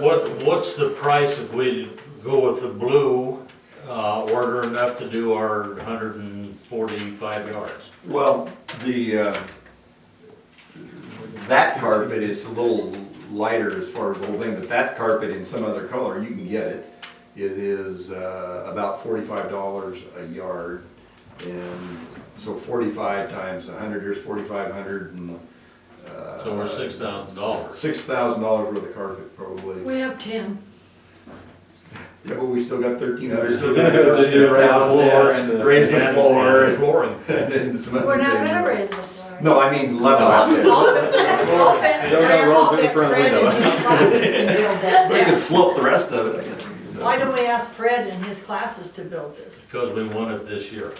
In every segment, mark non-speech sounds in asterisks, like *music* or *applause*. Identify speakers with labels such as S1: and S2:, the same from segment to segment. S1: What, what's the price if we go with the blue, uh, order enough to do our hundred and forty-five yards?
S2: Well, the, uh, that carpet is a little lighter as far as the whole thing, but that carpet in some other color, you can get it. It is uh, about forty-five dollars a yard, and so forty-five times a hundred, here's forty-five hundred and. uh,
S1: So we're six thousand dollars.
S2: Six thousand dollars worth of carpet probably.
S3: We have ten.
S2: Yeah, but we still got thirteen
S1: We
S2: hundred.
S1: still got $1,300.
S2: Raise the
S1: And-
S2: floor.
S1: and
S2: and-
S1: Flooring.
S2: and *laughs* some other
S4: We're not
S2: things.
S4: gonna raise the floor.
S2: No, I mean level out
S3: *laughs*
S2: there.
S3: Open,
S5: You're gonna
S3: Fran,
S5: roll through the
S3: open,
S5: front
S3: Fred
S5: window.
S3: and his classes to build that *laughs*
S2: We could
S3: down.
S2: slope the rest of it, I guess.
S3: Why don't we ask Fred and his classes to build this?
S1: Because we won it this year.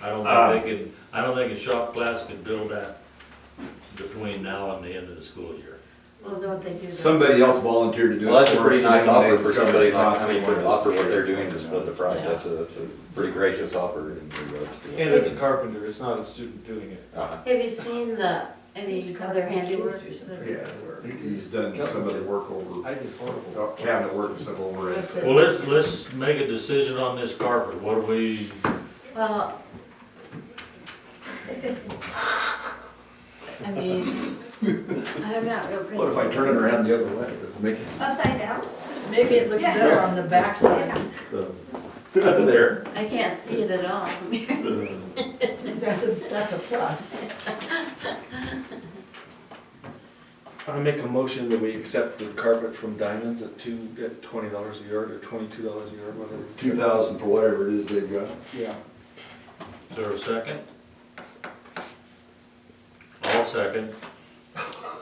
S1: I
S2: Ah.
S1: don't think they could, I don't think a shop class could build that between now and the end of the school year.
S4: Well, don't they do that?
S2: Somebody else volunteered to do it.
S5: Well, that's a
S2: for
S5: pretty
S2: us,
S5: nice
S2: and then
S5: offer
S2: they
S5: for
S2: discovered
S5: somebody,
S2: the
S5: like,
S2: cost
S5: I mean,
S2: and
S5: to offer what they're doing to
S2: wanted us
S5: split the price,
S4: Yeah.
S5: that's a, that's a pretty gracious offer in regards to.
S6: And it's a carpenter, it's not a student doing it.
S5: Uh-huh.
S4: Have you seen the, any other handiwork?
S2: Yeah, he's done some of the work over,
S6: I did
S2: uh,
S6: horrible.
S2: cabinet work and stuff over it.
S1: Well, let's, let's make a decision on this carpet. What do we,
S4: Well. *laughs* I mean, I'm not real pretty.
S2: What if I turn it around the other way? Does it make
S7: Upside down?
S3: Maybe it looks better on the backside.
S2: it there?
S4: I can't see it at all. *laughs*
S3: That's a, that's a plus.
S6: I make a motion that we accept the carpet from Diamonds at two, at twenty dollars a yard or twenty-two dollars a yard, whatever.
S2: Two thousand for whatever it is they've got.
S6: Yeah.
S1: is there a second? I'll second.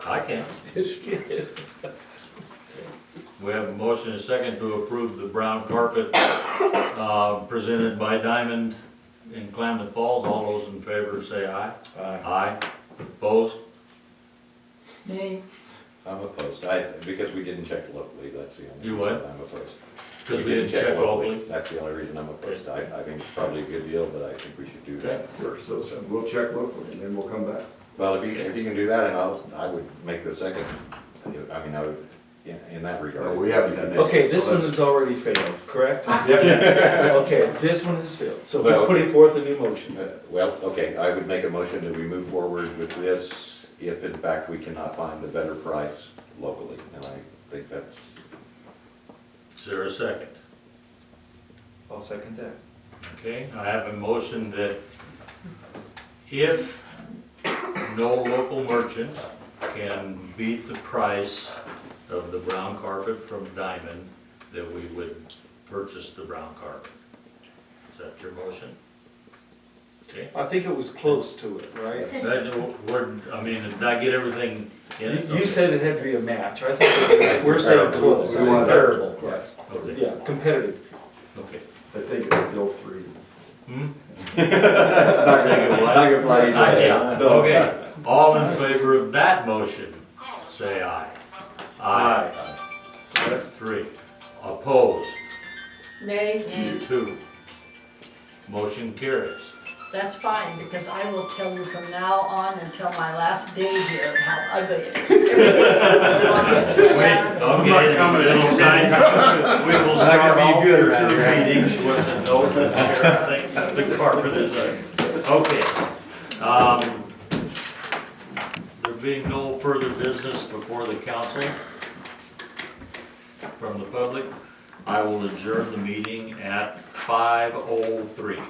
S1: I can. We have a motion and a second to approve the brown carpet, uh, presented by Diamond in Klamath Falls. All those in favor say aye. Aye. Opposed?
S3: Nay,
S5: I'm opposed, I, because we didn't check locally, that's the only.
S1: You what?
S5: reason I'm opposed.
S1: Because we didn't check locally.
S5: That's the only reason I'm opposed, I, I think it's probably a good deal, but I think we should do that first.
S2: So so we'll check locally and then we'll come back.
S5: Well, if you, if you can do that, and I'll, I would make the second, I mean, I would, in, in that
S2: No,
S5: regard.
S2: we haven't done that.
S6: Okay,
S2: So
S6: this one
S2: that's-
S6: has already failed,
S2: *laughs*
S6: correct?
S2: Yep.
S6: Okay, this one has failed, so who's
S5: Well-
S6: putting forth a new motion?
S5: Uh, Well, okay, I would make a motion that we move forward with this if in fact we cannot find a better price locally, and I think that's,
S1: Is there a second?
S6: I'll second that.
S1: Okay, I have a motion that if no local merchant can beat the price of the brown carpet from Diamond, that we would purchase the brown carpet. Is that your motion? Okay.
S6: I think it was close to it, right?
S1: That, we're, I mean, did I get everything in it?
S6: You- You said it had to be a match, I
S2: *laughs*
S6: think we're saying close,
S2: We want-
S6: comparable, yes.
S1: Okay,
S6: Yeah, competitive.
S1: Okay.
S2: I think it's still three.
S1: Hmm?
S6: *laughs*
S5: not
S1: Not
S5: gonna fly either
S1: Uh,
S5: way.
S1: yeah, okay. All in favor of that motion, say aye. Aye. So that's three. Opposed,
S3: nay,
S4: And
S1: two. Motion carries.
S3: that's fine, because I will tell you from now on until my last day here how ugly it *laughs* is.
S1: *laughs*
S3: Oh,
S1: I'm not coming in. We will start
S5: gonna be
S1: all
S5: good
S1: future
S5: around
S1: meetings with the note that the sheriff thinks that the carpet is ugly. Okay. Um, There being no further business before the council from the public, I will adjourn the meeting at five oh three.